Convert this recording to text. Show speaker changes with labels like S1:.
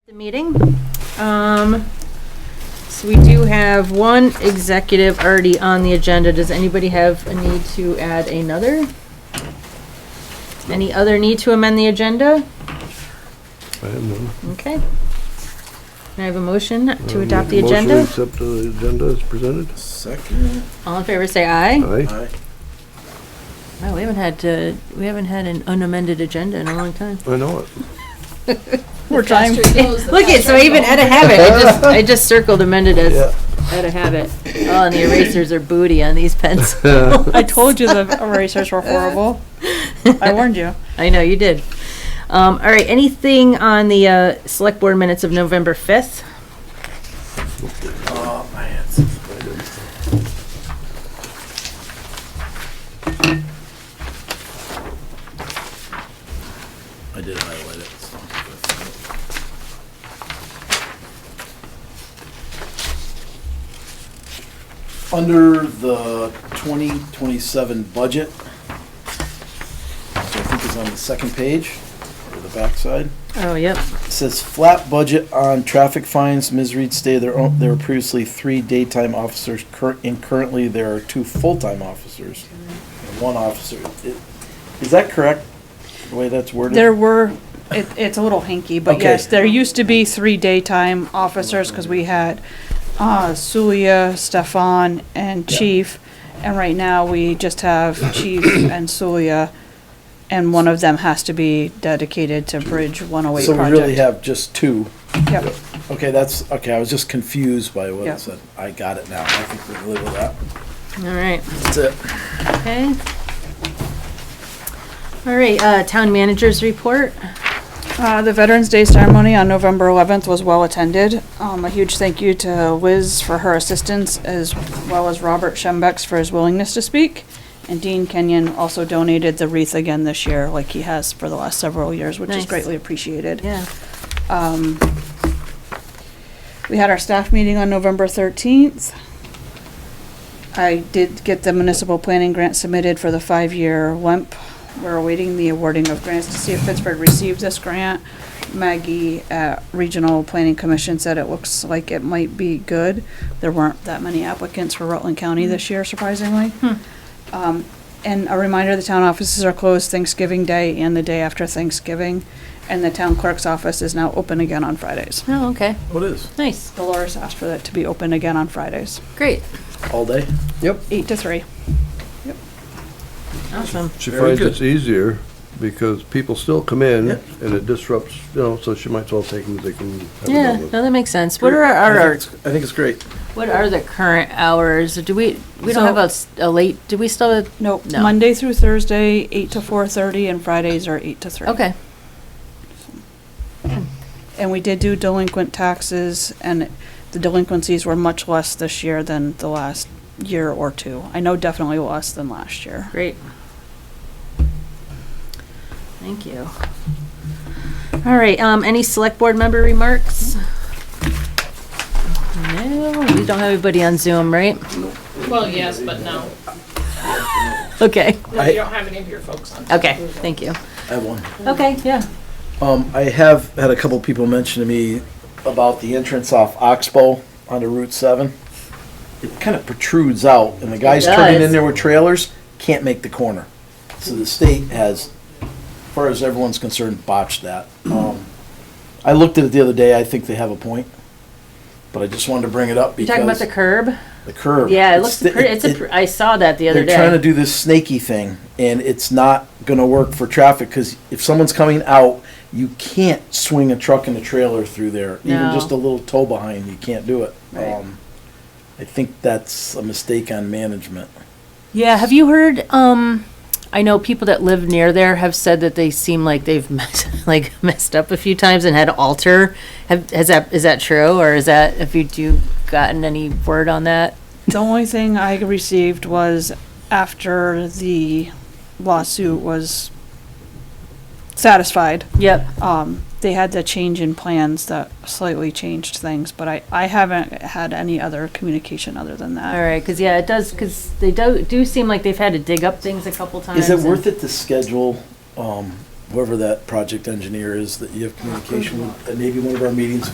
S1: the meeting. Um, so we do have one executive already on the agenda. Does anybody have a need to add another? Any other need to amend the agenda?
S2: I have none.
S1: Okay. Can I have a motion to
S2: Uh,
S1: adopt the
S2: motion to
S1: agenda?
S2: accept the agenda as presented.
S3: Second.
S1: All in favor, say aye.
S2: Aye.
S3: Aye.
S1: Wow, we haven't had, uh, we haven't had an unamended agenda in a long time.
S2: I know it.
S1: We're trying.
S4: faster it goes, the
S1: Look at, so I even out of habit, I just, I just circled amended as
S2: Yeah.
S1: out of habit. Oh, and the erasers are booty on these pens.
S5: I told you the erasers were horrible. I warned you.
S1: I know, you did. Um, all right, anything on the, uh, select board minutes of November fifth?
S3: Oh, my hands. I did highlight it. so I'll put it. Under the twenty twenty-seven budget, which I think is on the second page, or the backside.
S1: Oh, yep.
S3: It Says flat budget on traffic fines, Ms. Reed stated there, o- there were previously three daytime officers, cur- and currently there are two full-time officers. and One officer, It- is that correct, the way that's worded?
S5: There were, it, it's a little hinky, but
S3: Okay.
S5: yes, there used to be three daytime officers because we had, uh, Suya, Stefan, and Chief. And right now, we just have Chief and Suya, and one of them has to be dedicated to Bridge 108
S3: So we
S5: project.
S3: really have just two,
S5: Yep.
S3: okay, that's, okay, I was just confused by what
S5: Yeah.
S3: it said, I got it now, I think we can live with that,
S1: All right,
S3: that's it.
S1: okay. All right, uh, town managers report.
S5: Uh, the Veterans Day ceremony on November 11th was well-attended. Um, a huge thank you to Wiz for her assistance, as well as Robert Schembex for his willingness to speak. And Dean Kenyon also donated the wreath again this year, like he has for the last several years, which
S1: Nice.
S5: is greatly appreciated.
S1: Yeah.
S5: We had our staff meeting on November 13th. I did get the municipal planning grant submitted for the five-year LEMP. We're awaiting the awarding of grants to see if Pittsburgh received this grant. Maggie at Regional Planning Commission said it looks like it might be good. There weren't that many applicants for Rutland County this year surprisingly. Um, And a reminder, the town offices are closed Thanksgiving Day and the day after Thanksgiving. And the town clerk's office is now open again on Fridays.
S1: Oh, okay,
S3: What is?
S1: nice,
S5: Dolores asked for that to be open again on Fridays,
S1: great,
S3: All day?
S5: eight to three.
S1: awesome.
S2: She
S3: Very
S2: finds
S3: good.
S2: it's easier because people still come in
S3: Yep.
S2: and it disrupts, you know, so she might as well take them as they can. have it
S1: Yeah,
S2: done with.
S1: no, that makes sense. What are
S3: I
S1: our,
S3: think
S1: our,
S3: it's- I think it's great,
S1: what are the current hours? Do we, we don't
S5: So-
S1: have a s- a late, do we still, have-
S5: Nope,
S1: No.
S5: Monday through Thursday, eight to four thirty, and Fridays are eight to three.
S1: okay.
S5: And we did do delinquent taxes, and the delinquencies were much less this year than the last year or two. I know definitely less than last year.
S1: Great. Thank you. All right, um, any select board member remarks? No, we don't have anybody on Zoom, right?
S4: Well, yes, but no.
S1: Okay,
S4: No,
S3: I-
S4: you don't have any of your folks on.
S1: okay, thank you.
S3: I have one.
S1: Okay, yeah.
S3: Um, I have had a couple people mention to me about the entrance off Oxbow onto Route seven. It kind of protrudes out, and the guys
S1: It
S3: turning
S1: does.
S3: in there with trailers can't make the corner. So the state has, as far as everyone's concerned, botched that. Um, I looked at it the other day, I think they have a point, but I just wanted to bring it up
S1: You talking about
S3: because
S1: the curb?
S3: the curb.
S1: Yeah, it
S3: it's
S1: looks
S3: the-
S1: pretty, it's a,
S3: it-
S1: pr- I saw that the other
S3: they're trying to
S1: day.
S3: do this snaky thing, and it's not gonna work for traffic, because if someone's coming out, you can't swing a truck and a trailer through there. Even
S1: No.
S3: just a little tow behind, you can't do it.
S1: Right.
S3: Um, I think that's a mistake on management.
S1: Yeah, have you heard, um, I know people that live near there have said that they seem like they've messed, like messed up a few times and had to alter. Have, has that, is that true or is that, have you, do you gotten any word on that?
S5: The only thing I received was after the lawsuit was satisfied,
S1: Yep.
S5: um, they had the change in plans that slightly changed things, but I, I haven't had any other communication other than that.
S1: All right, because yeah, it does, because they do, do seem like they've had to dig up things a couple times.
S3: Is it worth it to schedule, um, whoever that project engineer is that you have communication with, and maybe one of our meetings,